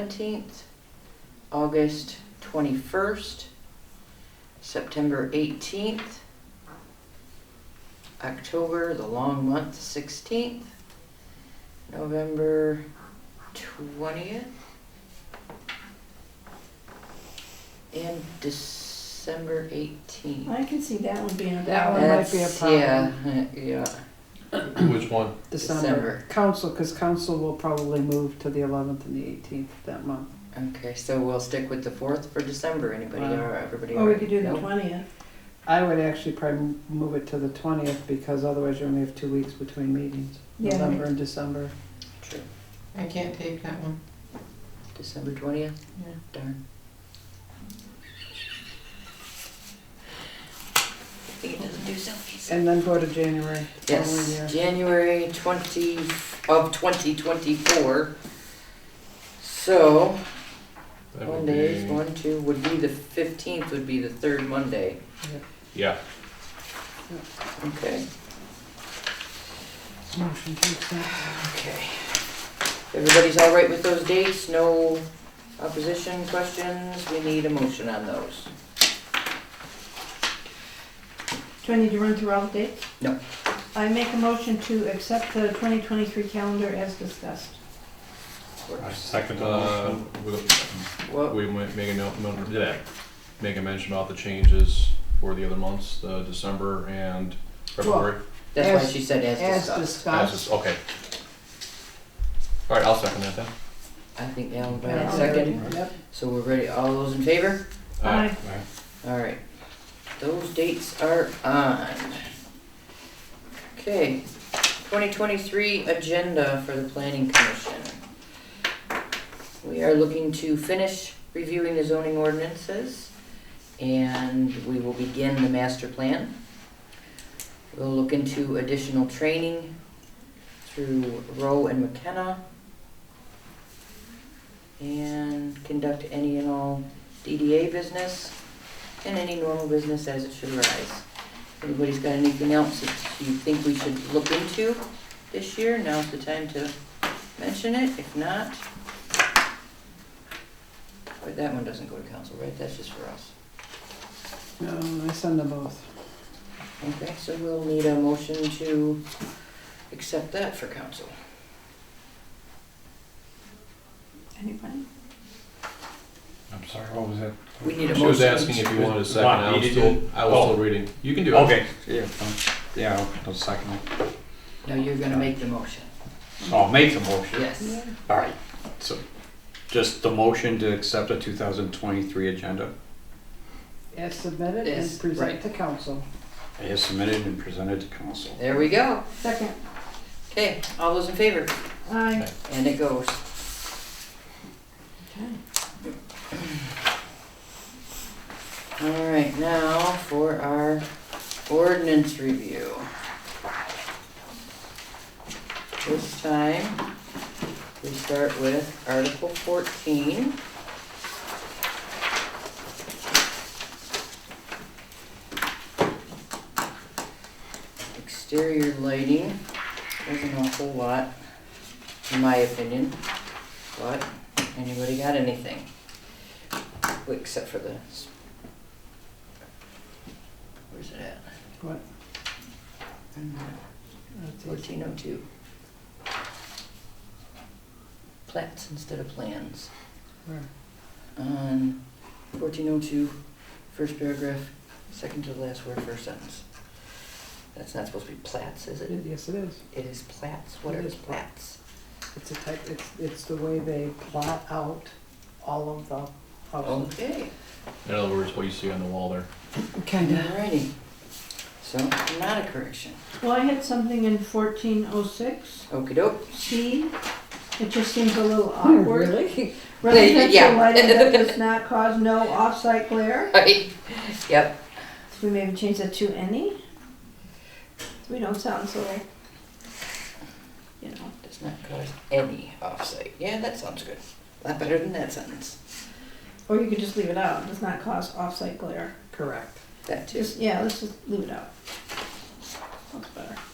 seventeenth, August twenty-first, September eighteenth, October, the long month, sixteenth, November twentieth, and December eighteenth. I can see that one being a That problem. one might be a problem. Yeah, yeah, Which one? December. Council, because council will probably move to the eleventh and the eighteenth that month. okay, so we'll stick with the fourth for December, anybody, Wow. or everybody? Or we all could do the right? twentieth. I would actually probably move it to the twentieth because otherwise you only have two weeks between meetings, Yeah. November and December. True. I can't take that one. December twentieth? Yeah. Darn. He doesn't do selfies. And then go to January. the following year. Yes, January twenty, of twenty twenty-four. So, That would Mondays, be- one, two, would be the fifteenth would be the third Monday, Yeah, okay. Motion to accept. Okay. Everybody's all right with those dates? No opposition questions? We need a motion on those. Do I need to run through all the dates? No. I make a motion to accept the twenty twenty-three calendar as discussed. I second the uh, motion. Well, we might make a note, note- yeah, make a mention about the changes for the other months, the December and February. that's why As- she said as As discussed. discussed. That's just, okay. All right, I'll second that then. I think Alan Yeah, Brown I'll second. Yep. So we're ready, all those in favor? Uh, Aye. Alright, those dates are on. Okay, twenty twenty-three agenda for the planning commission. We are looking to finish reviewing the zoning ordinances and we will begin the master plan. We'll look into additional training through Rowe and McKenna. And conduct any and all DDA business and any normal business as it should arise. Anybody's got anything else that you think we should look into this year? Now's the time to mention it, if not. But that one doesn't go to council, right? That's just for us. No, I send them both. Okay, so we'll need a motion to accept that for council. Anybody? I'm sorry, what was that? We need a She was motion. asking if you wanted a second, Not I was needed. still, I was Oh. still reading. You can do it. Okay, yeah, fine. yeah, I'll- I'll second it. No, you're gonna make the motion. So I'll make the motion. Yes. All right, so just the motion to accept the 2023 agenda As submitted Yes, and right. present to council. as submitted and presented to council. There we go. Second. Okay, all those in favor? Aye. And it goes. Okay. All right, now for our ordinance review. This time, we start with Article fourteen. Exterior lighting, wasn't a whole lot, in my opinion, but anybody got anything? Except for the s- Where's it at? What? Fourteen oh two. Plats instead of plans. Where? On fourteen oh two, first paragraph, second to the last word, first sentence. That's not supposed to be plats, is it? Yes, it is. It is plats, what It are is plat. plats? It's a type, it's, it's the way they plot out all of the houses. Okay, In other words, what you see on the wall there. alrighty. So, not a correction. Well, I had something in fourteen oh six, Okey doke. C. It just seems a little Oh, awkward. really? Residential Yeah. lighting that does not cause no off-site glare. Right, yep. So we maybe change that to any? We don't sound so, you know. Does not cause any offsite. Yeah, that sounds good. A lot better than that sentence. Or you could just leave it out, does not cause off-site glare. Correct. That too. Just, yeah, let's just leave it out. That's better. um,